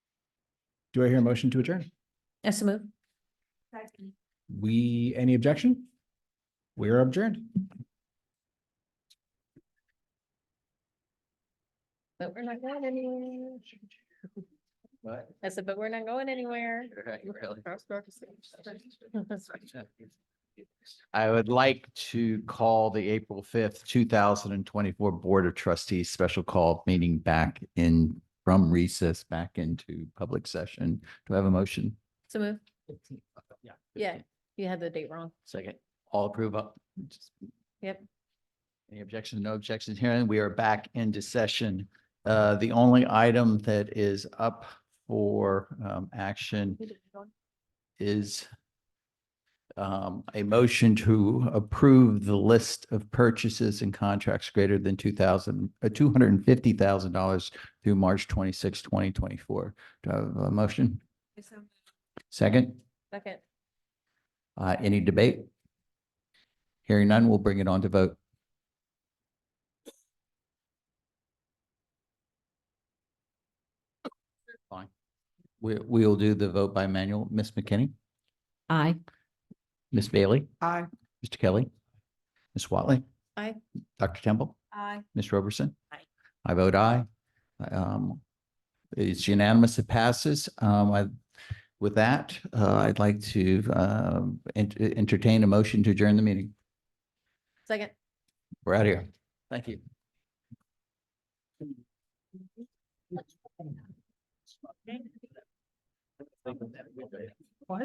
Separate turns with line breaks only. Do I hear a motion to adjourn?
So move.
We, any objection? We are adjourned.
But we're not going anywhere.
What?
I said, but we're not going anywhere.
Right, really.
That's
I would like to call the April fifth, two thousand and twenty-four Board of Trustees special call meeting back in, from recess back into public session. Do I have a motion?
So move. Yeah, you had the date wrong.
Second. All approve up?
Yep.
Any objections? No objections here. And we are back into session. Uh, the only item that is up for, um, action is um, a motion to approve the list of purchases and contracts greater than two thousand, uh, two hundred and fifty thousand dollars through March 26, 2024. Do I have a motion? Second,
Second.
uh, any debate? Hearing none, we'll bring it on to vote. Fine. We, we'll do the vote by manual. Ms. McKinney?
Aye.
Ms. Bailey?
Aye.
Mr. Kelly? Ms. Watley?
Aye.
Dr. Temple?
Aye.
Ms. Roberson?
Aye.
I vote aye. Um, it's unanimous, it passes. Um, I, with that, uh, I'd like to, um, ent- entertain a motion to adjourn the meeting.
Second.
We're out of here. Thank you.